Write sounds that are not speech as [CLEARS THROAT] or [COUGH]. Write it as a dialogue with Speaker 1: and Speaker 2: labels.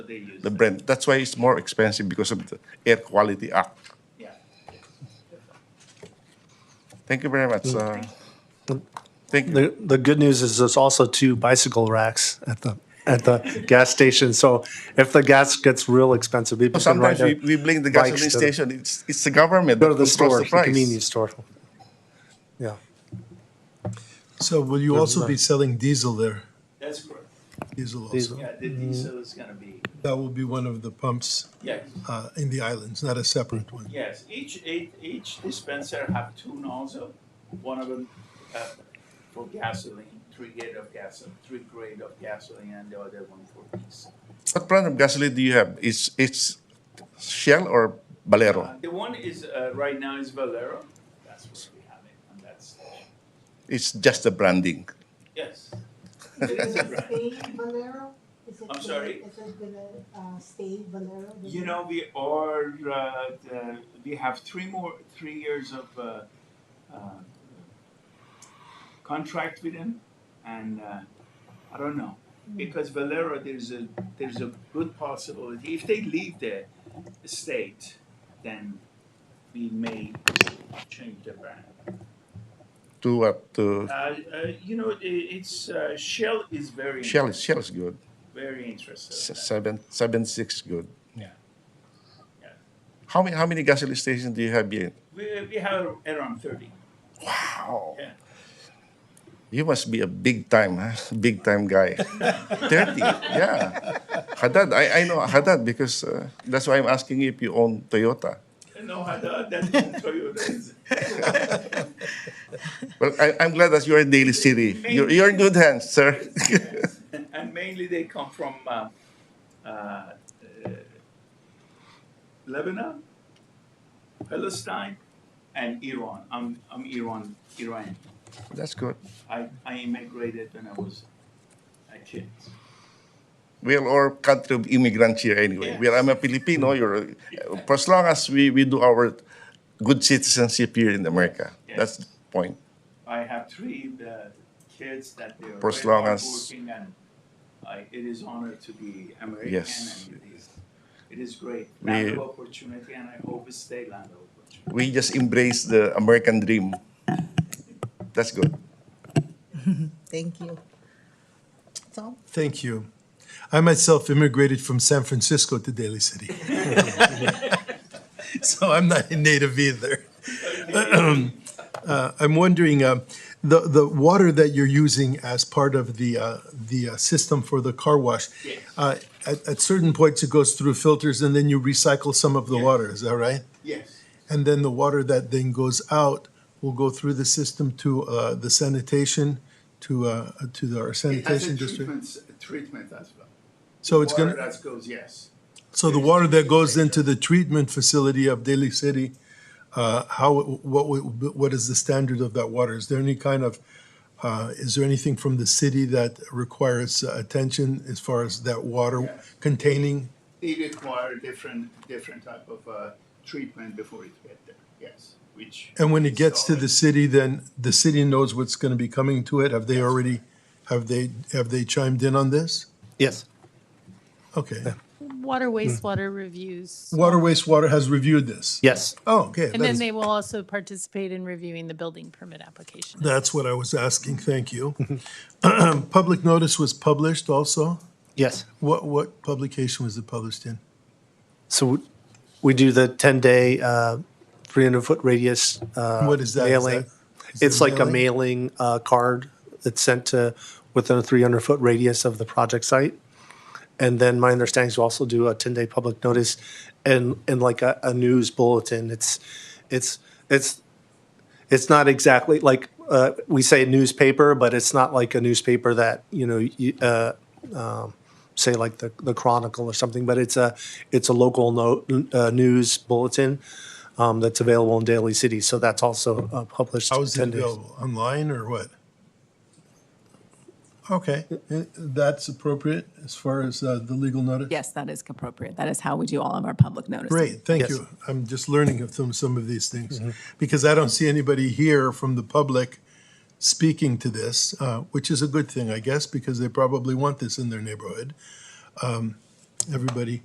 Speaker 1: the Brent. That's why it's more expensive because of the Air Quality Ah, Act. Thank you very much. Uh, thank you.
Speaker 2: Mm. The, the good news is there's also two bicycle racks at the, at the gas station. So if the gas gets real expensive, people can ride
Speaker 1: Sometimes we,
Speaker 2: their
Speaker 1: we blame the gasoline
Speaker 2: bikes to the-
Speaker 1: station. It's it's the government
Speaker 2: Go to
Speaker 1: that
Speaker 2: the
Speaker 1: controls
Speaker 2: store,
Speaker 1: the
Speaker 2: the
Speaker 1: price.
Speaker 2: convenience store. Yeah.
Speaker 3: So will you also be selling diesel there?
Speaker 4: That's correct.
Speaker 3: Diesel
Speaker 2: Diesel.
Speaker 3: also?
Speaker 4: Yeah, the diesel is gonna be,
Speaker 3: That will be one of the pumps
Speaker 4: yes,
Speaker 3: uh, in the islands, not a separate one.
Speaker 4: yes. Each, each each dispenser have two nozzle, one of them uh, for gasoline, three grade of gasoline, three grade of gasoline, and the other one for diesel.
Speaker 1: What brand of gasoline do you have? It's it's Shell or
Speaker 4: Uh,
Speaker 1: Valero.
Speaker 4: The one is, uh, right now is Valero, that's what we have it, and that's,
Speaker 1: It's just the branding.
Speaker 4: yes. It is a brand.
Speaker 5: Stay Valero? Is
Speaker 4: I'm
Speaker 5: it gonna-
Speaker 4: sorry?
Speaker 5: Is it gonna, uh, stay Valero?
Speaker 4: You know, we are, uh, the, we have three more, three years of, uh, uh, contract with them, and, uh, I don't know. Because Valero, there's a, there's a good possibility, if they leave the state, then we may change the brand.
Speaker 1: To what? To
Speaker 4: Uh, uh, you know, i- it's, uh, Shell is very,
Speaker 1: Shell is Shell is good.
Speaker 4: very interested.
Speaker 1: S- Seven seven six good.
Speaker 4: Yeah. Yeah.
Speaker 1: How many how many gasoline stations do you have here?
Speaker 4: We, we have around thirty,
Speaker 1: Wow.
Speaker 4: yeah.
Speaker 1: You must be a big time, huh? big time guy. 30, yeah. Haddad, I, I know Haddad because uh, that's why I'm asking you if you own Toyota.
Speaker 4: No, I don't. That's Toyota. is-
Speaker 1: Well, I, I'm glad that you're in Daly City. You're, you're in good hands, sir. [LAUGHS]
Speaker 4: and mainly they come from uh, uh, uh, Lebanon, Palestine, and Iran. I'm, I'm Iran, Iran.
Speaker 1: that's good.
Speaker 4: I, I immigrated when I was a kid.
Speaker 1: We're all country of immigrants here anyway. We're, I'm a Filipino. You're, for as long as we, we do our good citizenship here in America,
Speaker 4: Yes.
Speaker 1: that's the point.
Speaker 4: I have three uh, kids that they are
Speaker 1: For as
Speaker 4: very
Speaker 1: long as-
Speaker 4: hardworking and I, it is honor to be American.
Speaker 1: Yes.
Speaker 4: And it, is, it is great.
Speaker 1: We-
Speaker 4: Land of opportunity, and I hope it stay land of opportunity.
Speaker 1: We just embrace the American dream. That's good.
Speaker 5: Thank you. Tom?
Speaker 3: Thank you. I myself immigrated from San Francisco to Daly City. [LAUGHS] So I'm not a native either. Uh, I'm wondering, uh, the, the water that you're using as part of the, uh, the uh, system for the car wash,
Speaker 4: Yes.
Speaker 3: uh, at, at certain points it goes through filters and then you recycle some of the water, is that right?
Speaker 4: Yes.
Speaker 3: And then the water that then goes out will go through the system to uh, the sanitation, to, uh, to our
Speaker 4: It has
Speaker 3: sanitation
Speaker 4: a
Speaker 3: district.
Speaker 4: treatment, treatment as well.
Speaker 3: So Oh, it's
Speaker 4: Water
Speaker 3: gonna,
Speaker 4: That goes, yes.
Speaker 3: so the water that goes into the treatment facility of Daly City, uh, how, what, would- what is the standard of that water? Is there any kind of, uh, is there anything from the city that requires uh, attention as far as that water
Speaker 4: Yes.
Speaker 3: containing?
Speaker 4: They require different, different type of uh, treatment before it get there, yes, which.
Speaker 3: And when it
Speaker 4: is
Speaker 3: gets to
Speaker 4: all-
Speaker 3: the city, then the city knows what's gonna be coming to it? Have they already, have they, have they chimed in on this?
Speaker 2: Yes.
Speaker 3: Okay.
Speaker 6: water wastewater reviews.
Speaker 3: Water wastewater has reviewed this?
Speaker 2: Yes.
Speaker 3: Oh, okay.
Speaker 6: And
Speaker 3: that
Speaker 6: then
Speaker 3: is-
Speaker 6: they will also participate in reviewing the building permit application. as
Speaker 3: That's what I was asking, thank
Speaker 2: [LAUGHS]
Speaker 3: you. [CLEARS THROAT] Public notice was published also?
Speaker 2: Yes.
Speaker 3: What, what publication was it published in?
Speaker 2: So we- we do the uh, 10-day, 300-foot radius uh,
Speaker 3: What is that? Is
Speaker 2: mailing.
Speaker 3: that- is it
Speaker 2: It's like a mailing uh, card that's sent to within a 300-foot radius of the project site. And then my understanding is we also do a 10-day public notice and, and like a, a news bulletin. It's, it's, it's, it's not exactly like, uh, we say newspaper, but it's not like a newspaper that, you know, you, uh, um, say like the, the Chronicle or something, but it's a, it's a local no, uh, news bulletin um, that's available in Daly City. So that's also uh, published.
Speaker 3: How is it
Speaker 2: 10 days.
Speaker 3: available? Online or what? Okay, i- that's appropriate as far as uh, the legal notice?
Speaker 7: Yes, that is appropriate. That is how we do all of our public notices.
Speaker 3: Great, thank
Speaker 2: Yes.
Speaker 3: you. I'm just learning of some, some of these things. Because I don't see anybody here from the public speaking to this, uh, which is a good thing, I guess, because they probably want this in their neighborhood. Um, everybody.